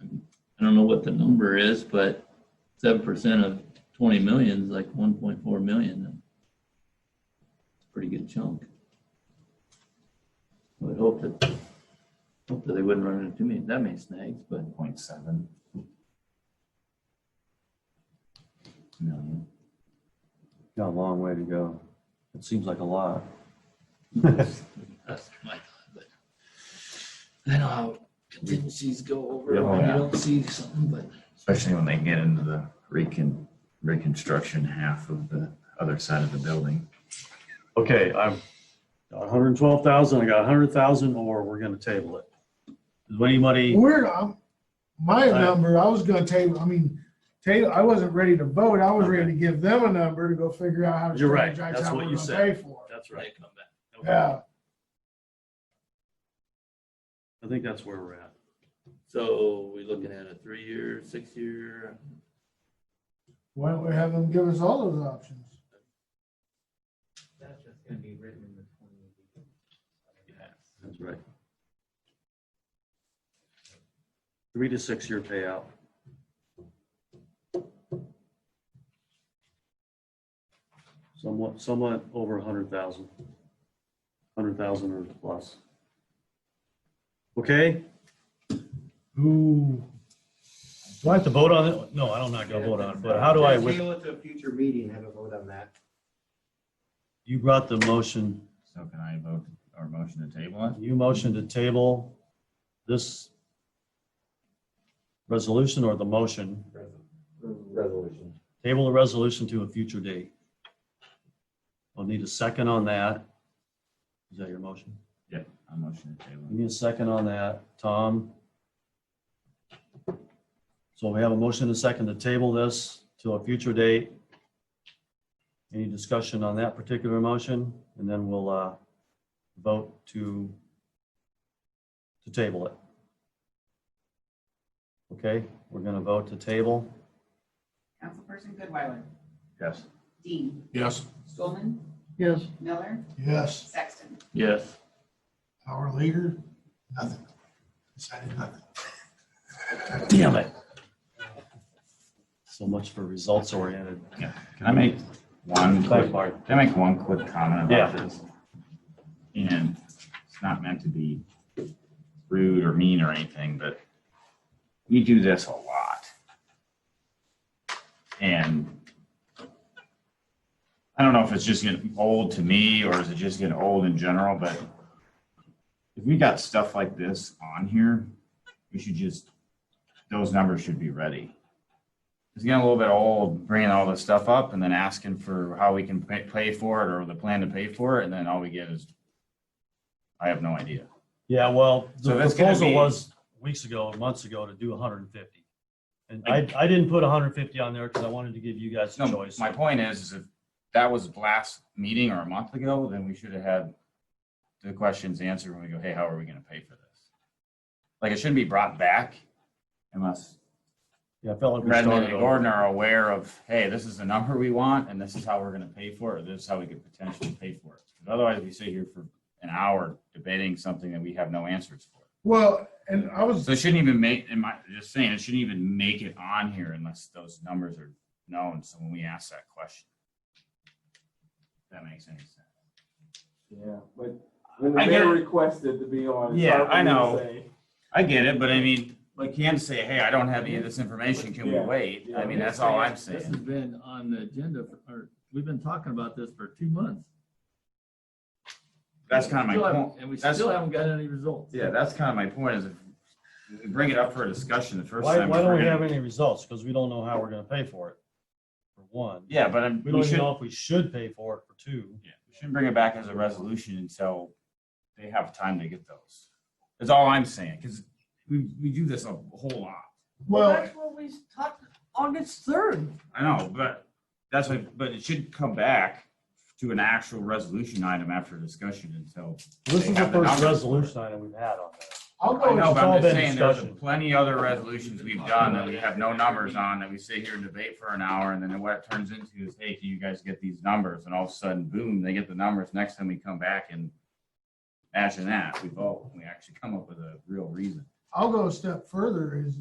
I don't know what the number is, but seven percent of twenty million is like one point four million. It's a Pretty good chunk. I would hope that, hope that they wouldn't run into too many, that many snags, but Point seven million. Got a long way to go. It seems like a lot. that's my thought, but. I know how contingencies go over Oh, Yeah. when you don't see something, but Especially when they get into the recon, reconstruction half of the other side of the building. Okay, I've got hundred and twelve thousand, I got hundred thousand, or we're gonna table it. Does anybody, We're, um, my Aye. number, I was gonna table, I mean, table, I wasn't ready to vote, I was ready to give them a number to go figure out how to. You're right. strategize That's how what we're you gonna said. Pay for it. that's they right. come back. Okay. Yeah, I think that's where we're at. So we looking at a three-year, six-year, why don't we have them give us all those options? That's just gonna be written in the twenty. That's right. Three to six year payout. Somewhat, somewhat over a hundred thousand. Hundred thousand or plus. Okay? Who? Do I have to vote on it? No, I don't, not gonna vote on it, but how do I, with- Table it to a future meeting, have a vote on that. you brought the motion. So can I vote or motion to table it? You motion to table this resolution or the motion, Resolution. table the resolution to a future date. I'll need a second on that. Is that your motion? I motion to We table need a second on that. Tom? So we have a motion and a second to table this to a future date. Any discussion on that particular motion? And then we'll uh, vote to, to table it. Okay, we're going to vote to table. Councilperson Goodweiler? it. Yes. Dean? Yes. Stolman? Yes. Miller? Yes, Sexton? yes, our leader, nothing, decided nothing. Damn it. So much for results oriented. Can I make one quick Mark. Can I make one quick comment about Yeah. this? And it's not meant to be rude or mean or anything, but we do this a lot. And I don't know if it's just getting old to me or is it just getting old in general, but if we got stuff like this on here, we should just, those numbers should be ready it's getting a little bit old bringing all this stuff up and then asking for how we can pay, pay for it or the plan to pay for it. And then all we get is, I have no idea. Yeah, well, the So that's gonna proposal be- was weeks ago, months ago, to do hundred and fifty. And I, I didn't put hundred and fifty on there because I wanted to give you guys a No, choice. my point is, is if that was last meeting or a month ago, then we should have had the questions answered when we go, hey, how are we going to pay for this? Like it shouldn't be brought back unless Yeah, I felt like we Brendan started and over. Gordon are aware of, hey, this is the number we want, and this is how we're gonna pay for it, or this is how we could potentially pay for it. 'Cause Otherwise, we sit here for an hour debating something that we have no answers for. Well, and I was, So it shouldn't even make, am I just saying, it shouldn't even make it on here unless those numbers are known, so when we ask that question. If That makes any sense. Yeah, but when the I get mayor it. requested to be on. it's Yeah, hard for I me to know. say. I get it, but I mean, like you can say, hey, I don't have any of this information, can we Yeah, wait? I yeah. mean, that's all I'm This saying. has been on the agenda, for- or, we've been talking about this for two months. That's kind of Still my haven't- point. And we That's- still haven't got any results. Yeah, that's kind of my point, is if we bring it up for a discussion the first Why, time. why if don't we're we gonna- have any results? Because we don't know how we're gonna pay for it, for one. Yeah, but I'm- We we don't even should, know if we should pay for it, for two. yeah, we shouldn't bring it back as a resolution until they have time to get those. That's all I'm saying, because we, we do this a whole lot. well, what we talked August third. I know, but that's what, but it should come back to an actual resolution item after discussion until. This is the have the first numbers. resolution item we've had on that. I'll I go, know, it's but all I'm been just saying, there's discussion. plenty other resolutions we've done that we have no numbers on, that we sit here and debate for an hour, and then what it turns into is, hey, can you guys get these numbers? And all of a sudden, boom, they get the numbers, next time we come back and imagine that, we vote, and we actually come up with a real reason. I'll go a step further is